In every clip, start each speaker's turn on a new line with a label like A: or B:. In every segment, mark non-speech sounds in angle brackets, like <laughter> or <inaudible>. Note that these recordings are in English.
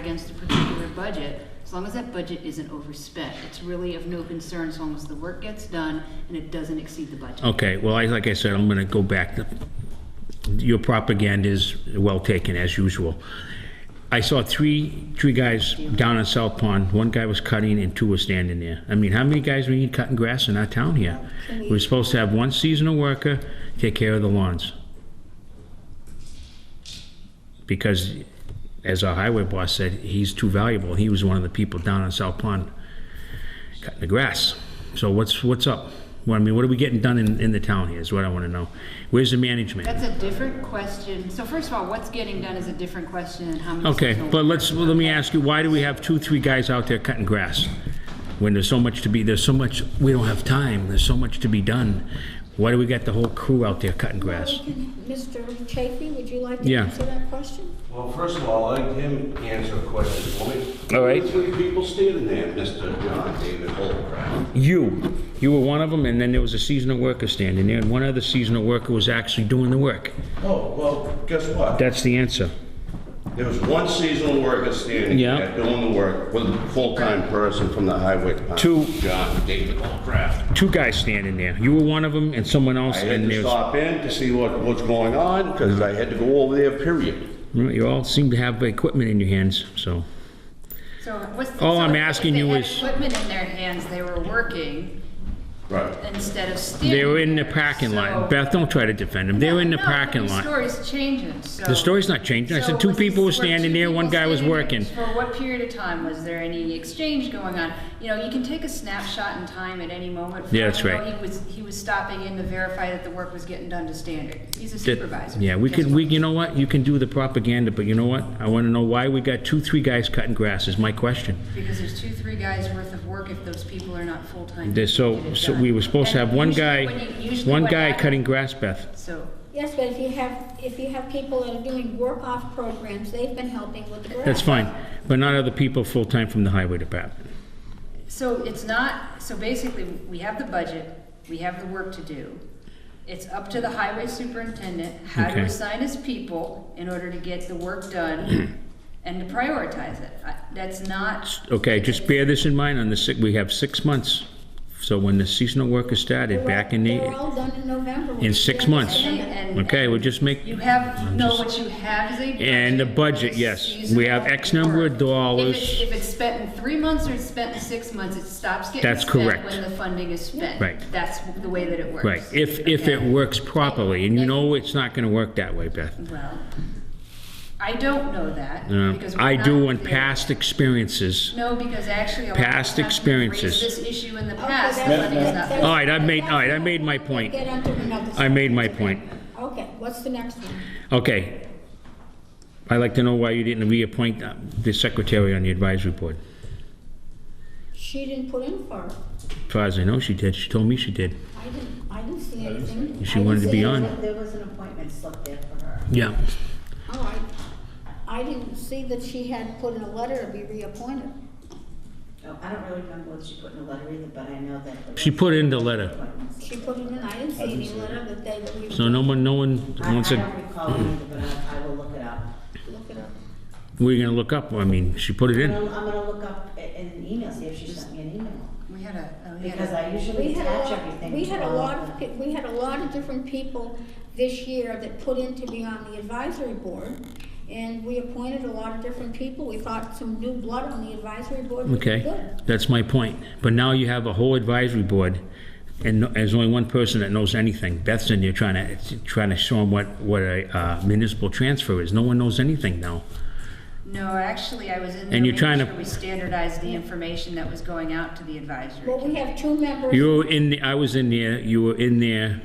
A: against a particular budget, as long as that budget isn't overspent, it's really of no concern as long as the work gets done and it doesn't exceed the budget.
B: Okay, well, I, like I said, I'm gonna go back to, your propaganda is well taken, as usual. I saw three, three guys down in South Pond, one guy was cutting and two were standing there. I mean, how many guys we need cutting grass in our town here? We're supposed to have one seasonal worker take care of the lawns. Because, as our highway boss said, he's too valuable, he was one of the people down in South Pond cutting the grass. So what's, what's up? Well, I mean, what are we getting done in, in the town here is what I want to know. Where's the management?
A: That's a different question. So first of all, what's getting done is a different question and how many.
B: Okay,
A: seasonal
B: but let's,
A: workers-
B: well, let me ask you, why do we have two, three guys out there cutting grass? When there's so much to be, there's so much, we don't have time, there's so much to be done. Why do we got the whole crew out there cutting grass?
C: Mr. Chafee, would you like to
B: Yeah.
C: answer that question?
D: Well, first of all, let him answer a question for me.
B: All right.
D: There's three people standing there, Mr. John David Holcraft.
B: You, you were one of them, and then there was a seasonal worker standing there, and one other seasonal worker was actually doing the work.
D: Oh, well, guess what?
B: That's the answer.
D: There was one seasonal worker standing
B: Yeah.
D: there doing the work with a full-time person from the highway department.
B: Two.
D: John David Holcraft.
B: Two guys standing there. You were one of them, and someone
D: I
B: else,
D: had
B: and
D: to
B: there's...
D: stop in to see what, what's going on, because I had to go over there, period.
B: Well, You all seem to have equipment in your hands, so.
A: So what's. the-
B: All
A: so
B: I'm
A: if
B: asking you is-
A: They had equipment in their hands, they were working
D: Right.
A: instead of standing.
B: They were in the
A: there,
B: parking
A: so-
B: lot. Beth, don't try to defend them. They were in the
A: No, no,
B: parking
A: The
B: lot.
A: story's changing, so.
B: The story's not changing. I
A: So
B: said two
A: was-
B: people were
A: two
B: standing there, one
A: people
B: guy was
A: standing there?
B: working.
A: For what period of time? Was there any exchange going on? You know, you can take a snapshot in time at any moment.
B: Yeah, that's
A: You know,
B: right.
A: He was, he was stopping in to verify that the work was getting done to standard. He's a
B: That-
A: supervisor.
B: Yeah, we
A: Guess
B: could,
A: what?
B: we, you know what? You can do the propaganda, but you know what? I want to know why we got two, three guys cutting grass is my question.
A: Because there's two, three guys worth of work if those people are not full-time.
B: There's
A: to get
B: so,
A: it
B: so
A: done.
B: we were supposed to
A: And
B: have one
A: usually
B: guy,
A: when you- usually
B: one
A: what
B: guy
A: happens-
B: cutting grass, Beth.
A: So,
C: Yes, but if you have, if you have people that are doing work-off programs, they've been helping with the grass.
B: That's fine, but not other people full-time from the highway department.
A: So it's not, so basically, we have the budget, we have the work to do. It's up to the highway superintendent how
B: Okay.
A: to assign his people in order to get the work
B: <clears throat>
A: done and to prioritize it. I- That's not,
B: Okay, just bear this in mind on the, si- we have six months. So when the seasonal worker started, back in
C: They're
B: the,
C: all done in November.
B: in six months.
A: and- and.
B: Okay, we'll just make,
A: You have,
B: I'm
A: no,
B: just-
A: what you have is a budget.
B: And the budget, yes. We have X number of dollars.
A: If it's, if it's spent in three months or it's spent in six months, it stops getting
B: That's
A: spent
B: correct.
A: when the funding is spent.
B: Right.
A: That's the way that it works.
B: right, if, if
A: Okay.
B: it works properly, and you know it's not gonna work that way, Beth.
A: Well, I don't know that.
B: Uh,
A: because we're
B: I do
A: not
B: in
A: there.
B: past experiences.
A: No, because actually. a lot of
B: past
A: times we've Raised
B: experiences.
A: this issue in the
C: Okay,
A: past, the
C: that's-
A: money is
C: that's-
A: not.
C: that's-
B: All right, I've made- all right, I made my point.
C: Get onto another
B: I made my
C: subject.
B: point.
C: Okay, what's the next one?
B: Okay. I'd like to know why you didn't reappoint uh, the secretary on the advisory board.
C: She didn't put in for it.
B: As far as I know, she did. She told me she did.
C: I didn't, I didn't see anything.
B: She wanted to be on.
E: There was an appointment slip there for her.
B: Yeah.
C: All right. I didn't see that she had put in a letter to be reappointed.
E: Oh, I don't really remember what she put in the letter either, but I know that.
B: She put in the letter.
C: She put it in, I didn't see any letter that they were
B: So
C: reappointed.
B: no one, no one
E: I I
B: wants to,
E: don't recall it either, but I, I will look it up.
C: Look it up.
B: we're gonna look up. I mean, she put it
E: I'm
B: in.
E: gonna, I'm gonna look up i- in an email, see if she sent me an email,
A: We had a, oh, we had
E: because
A: a,
E: I
C: We
E: usually
C: had a
E: attach
C: lot,
E: everything.
C: we had
E: to
C: a
E: all
C: lot
E: the-
C: of, pe- we had a lot of different people this year that put in to be on the advisory board, and we appointed a lot of different people. We thought some new blood on the advisory board would be
B: Okay,
C: good.
B: that's my point. But now you have a whole advisory board, and no- there's only one person that knows anything. Beth's in there trying to, trying to show them what, what a uh, municipal transfer is. No one knows anything now.
A: no, actually, I was in there.
B: And you're
A: making
B: trying to-
A: sure We standardized the information that was going out to the advisory.
C: Well, we have two members.
B: You were in, the- I was in there, you were in there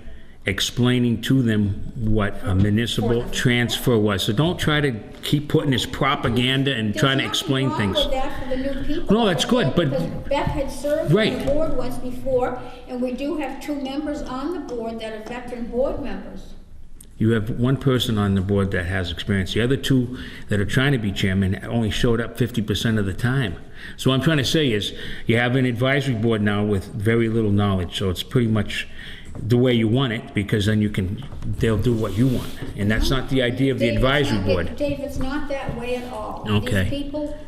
B: explaining to them what a municipal transfer was. So don't try to keep putting this propaganda and
C: There's
B: trying to
C: nothing
B: explain
C: wrong
B: things.
C: with that for the new people.
B: No, that's good, but-
C: Because Beth had served on the
B: Right.
C: board once before, and we do have two members on the board that are veteran board members.
B: You have one person on the board that has experience. The other two that are trying to be chairman only showed up 50% of the time. So what I'm trying to say is, you have an advisory board now with very little knowledge, so it's pretty much the way you want it, because then you can, they'll do what you want. And that's not the idea of the
C: Dave, it's not
B: advisory
C: that-
B: board.
C: Dave, it's not that way at all.
B: Okay.
C: These people